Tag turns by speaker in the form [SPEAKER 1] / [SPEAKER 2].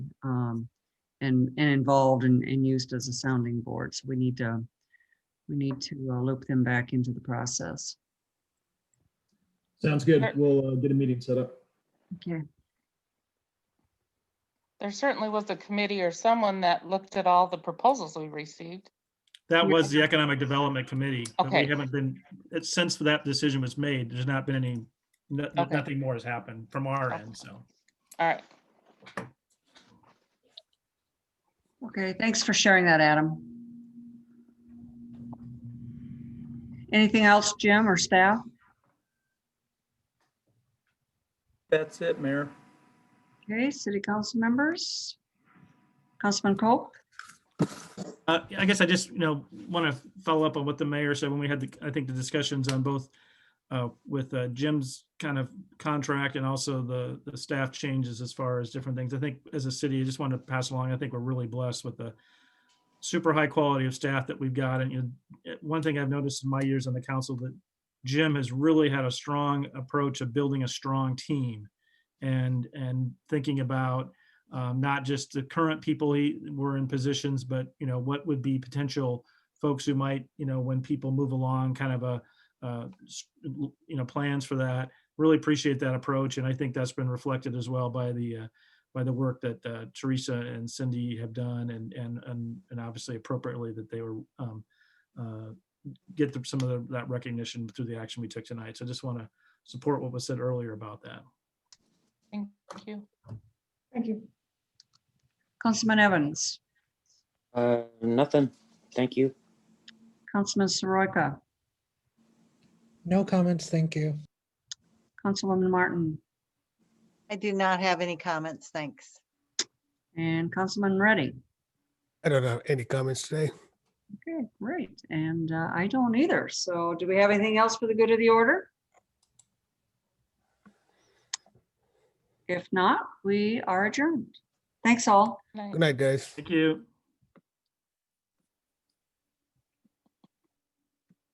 [SPEAKER 1] um, and, and involved and, and used as a sounding board. So we need to, we need to uh, loop them back into the process.
[SPEAKER 2] Sounds good.
[SPEAKER 3] Alright.
[SPEAKER 2] We'll uh, get a meeting set up.
[SPEAKER 1] Okay.
[SPEAKER 3] There certainly was a committee or someone that looked at all the proposals we received.
[SPEAKER 4] That
[SPEAKER 3] Yeah.
[SPEAKER 4] was the Economic Development Committee. but
[SPEAKER 3] Okay.
[SPEAKER 4] We haven't been, it's- since that decision was made, there's not been any, no-
[SPEAKER 3] Okay.
[SPEAKER 4] nothing more has happened from our
[SPEAKER 3] Okay.
[SPEAKER 4] end, so.
[SPEAKER 3] All right,
[SPEAKER 1] Okay, thanks for sharing that, Adam. Anything else, Jim or staff?
[SPEAKER 5] That's it, Mayor.
[SPEAKER 1] Okay, city council members? Councilman Coke?
[SPEAKER 4] Uh, I guess I just, you know, want to follow up on what the mayor said when we had the, I think the discussions on both uh, with uh, Jim's kind of contract and also the, the staff changes as far as different things. I think as a city, I just want to pass along, I think we're really blessed with the super high quality of staff that we've got. And you know, one thing I've noticed in my years on the council that Jim has really had a strong approach of building a strong team and, and thinking about um, not just the current people he were in positions, but you know what would be potential folks who might you know when people move along, kind of a uh, s- you know plans for that. Really appreciate that approach, and I think that's been reflected as well by the uh, by the work that uh, Teresa and Cindy have done, and and and and obviously appropriately that they were um, uh, get the, some of the, that recognition through the action we took tonight. So just want to support what was said earlier about that.
[SPEAKER 3] thank you.
[SPEAKER 1] Councilman Evans?
[SPEAKER 6] Uh, nothing. Thank you.
[SPEAKER 1] Councilman Soroka?
[SPEAKER 7] No comments, thank you.
[SPEAKER 1] Councilwoman Martin?
[SPEAKER 8] I do not have any comments, thanks.
[SPEAKER 1] And Councilman Reddy?
[SPEAKER 9] I don't have any comments today.
[SPEAKER 1] Okay, great. And uh, I don't either. So do we have anything else for the good of the order? If not, we are adjourned. Thanks all.
[SPEAKER 3] Night.
[SPEAKER 9] Good night, guys.
[SPEAKER 4] Thank you.